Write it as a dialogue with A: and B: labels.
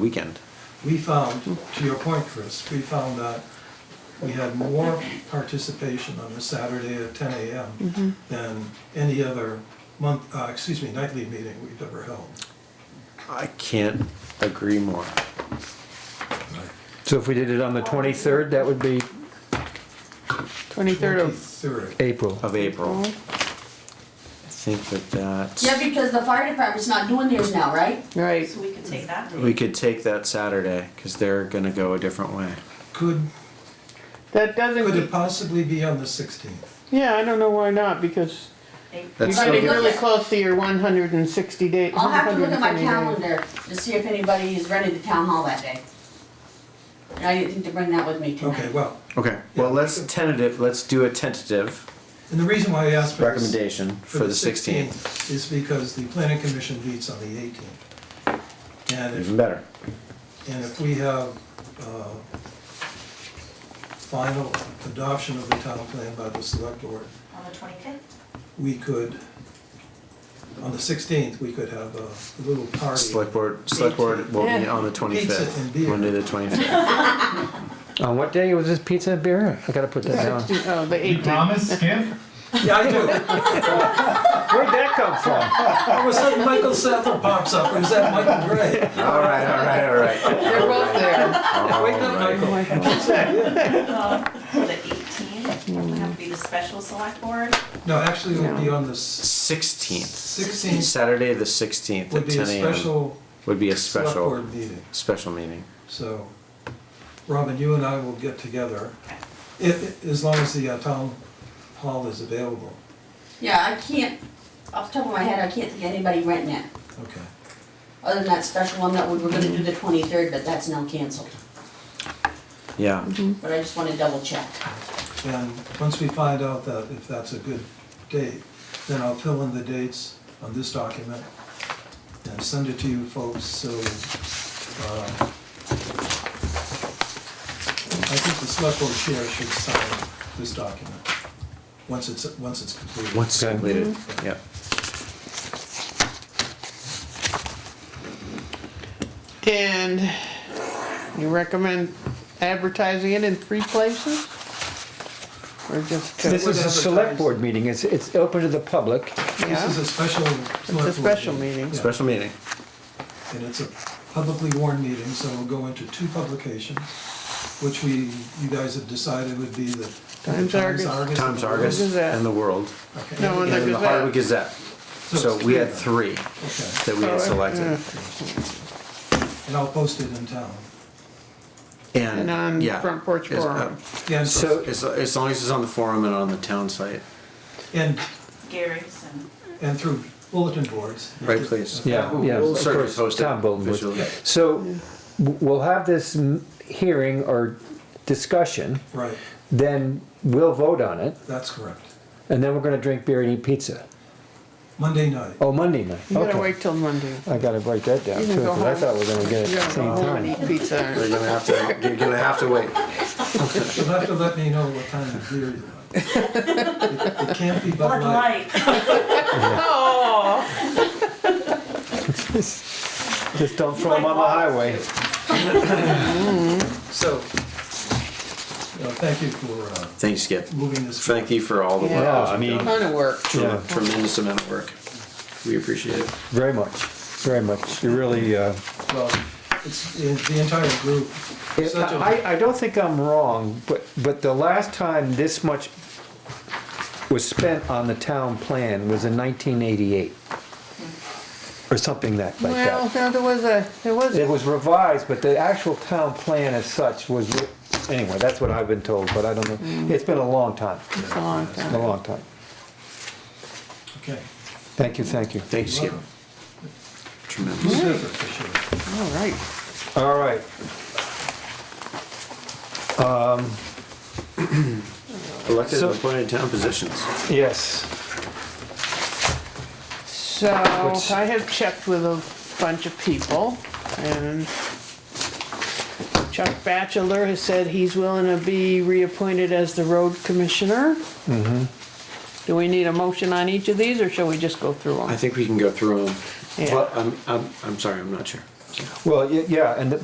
A: weekend.
B: We found, to your point, Chris, we found that we had more participation on the Saturday at ten AM than any other month, uh, excuse me, nightly meeting we've ever held.
A: I can't agree more.
C: So if we did it on the 23rd, that would be
D: 23rd of,
B: Third.
C: April.
A: Of April, I think that that's,
E: Yeah, because the fire department's not doing theirs now, right?
D: right,
F: So we could take that.
A: we could take that Saturday because they're gonna go a different way.
B: Could,
D: that
B: could it
D: doesn't,
B: possibly be on the sixteenth?
D: yeah, I don't know why not, because you're
A: That's
E: Right,
D: getting
E: look
D: really
E: at-
D: close to your one hundred and sixty day,
E: I'll have to look at my
D: 120 days.
E: calendar to see if anybody is ready to town hall that day. And I didn't think to bring that with me tonight.
B: Okay, well,
A: Okay, well, let's tentative, let's do a tentative
B: and the reason why I asked for this.
A: recommendation for the sixteenth.
B: Is because the planning commission meets on the eighteenth. And if
A: Even better.
B: And if we have uh, final adoption of the town plan by the select board,
F: On the twenty-fifth?
B: we could, on the 16th, we could have a little party.
A: Select board, select board will be on the
B: Pizza
A: twenty-fifth,
B: and beer.
A: Monday the twenty-fifth.
C: On what day was this pizza and beer? I gotta put that down.
D: 16 Oh, the
G: You
D: eighteenth,
G: promise, Skip?
B: Yeah, I do.
C: Where'd that come from?
B: All of a sudden, Michael Sather pops up, or is that Michael Gray?
A: All right, all right, all right.
D: they're both there.
B: Wake up, Michael.
F: The eighteenth, would have to be the special select board.
B: No, actually, it would be on the s-
A: Sixteenth,
B: 16th,
A: Saturday the sixteenth
B: would
A: at
B: be a
A: ten AM
B: special
A: would be a
B: select
A: special,
B: board meeting.
A: special meeting.
B: So, Robin, you and I will get together,
F: Okay.
B: if, as long as the uh, town hall is available.
E: Yeah, I can't, off the top of my head, I can't think of anybody right now.
B: Okay.
E: Other than that special one that we were gonna do the twenty-third, but that's now canceled.
A: Yeah,
E: But I just wanna double check.
B: And once we find out that, if that's a good date, then I'll fill in the dates on this document and send it to you folks, so, uh, I think the select board chair should sign this document, once it's, once it's completed.
A: once
C: Okay.
A: completed, yeah.
D: And you recommend advertising it in three places? Or just, two?
C: This is a select board meeting. It's, it's open to the public.
B: This is
D: yeah,
B: a special.
D: it's a special meeting,
B: Yeah.
A: Special meeting.
B: And it's a publicly warned meeting, so we'll go into two publications, which we, you guys have decided would be the.
D: Times Argus.
A: Times Argus
D: Gazette.
A: and the World.
B: Okay.
D: No, and the
A: And the
D: Gazette.
A: Hardwick Gazette. So we had three
B: Okay,
A: that we had
D: Oh,
A: selected.
B: and I'll post it in town.
D: and on
A: And, yeah.
D: front porch
A: As- uh,
D: forum.
B: And,
C: So-
A: As, as long as it's on the forum and on the town site.
B: and,
F: Gary's and
B: and through bulletin boards.
A: Right, please.
C: Yeah,
A: We'll-
C: yeah,
A: We'll
C: of
A: certainly
C: course,
A: post it
C: town bulletin board.
A: visually.
C: So w- we'll have this m- hearing or discussion,
B: Right,
C: then we'll vote on it,
B: that's correct.
C: and then we're gonna drink beer and eat pizza.
B: Monday night.
C: Oh, Monday night.
D: You gotta
C: Okay.
D: wait till Monday.
C: I gotta write that down
D: You
C: too,
D: can go
C: because I
D: home.
C: thought we were gonna get it at
D: You
C: the
D: gotta
C: same
D: go home
C: time.
D: and eat pizza.
A: You're gonna have to, you're gonna have to wait.
B: You'll have to let me know what kind of beer you like. It it can't be Bud
F: Bud
B: Light.
F: Light.
D: Oh,
C: Just don't throw them on the highway.
B: So, uh, thank you for uh,
A: Thanks, Skip.
B: moving this. forward.
A: Thank you for all the
D: Yeah.
A: work.
C: Yeah, I mean,
D: ton of work.
C: yeah,
A: Tremendous amount of work. We appreciate it.
C: very much, very much. You really, uh,
B: Well, it's the the entire group. Such a-
C: I, I don't think I'm wrong, but, but the last time this much was spent on the town plan was in nineteen eighty-eight. Or something that, like
D: Well,
C: that.
D: no, there was a, there was
C: It was revised, but the actual town plan as such was, re- anyway, that's what I've been told, but I don't know. It's been a long time,
D: a long time.
C: a long time.
B: Okay.
C: Thank you, thank you.
A: Thanks, Skip. Tremendous.
B: Super, for sure.
D: All
C: All
D: right.
C: right.
A: Elected
C: So-
A: and appointed town positions.
C: Yes.
D: So
C: Which-
D: I have checked with a bunch of people and Chuck Batchelor has said he's willing to be reappointed as the road commissioner. Do we need a motion on each of these or shall we just go through
A: I
D: them?
A: think we can go through them.
D: Yeah.
A: Well, I'm, I'm, I'm sorry, I'm not sure. yeah.
C: Well, y- yeah, and the-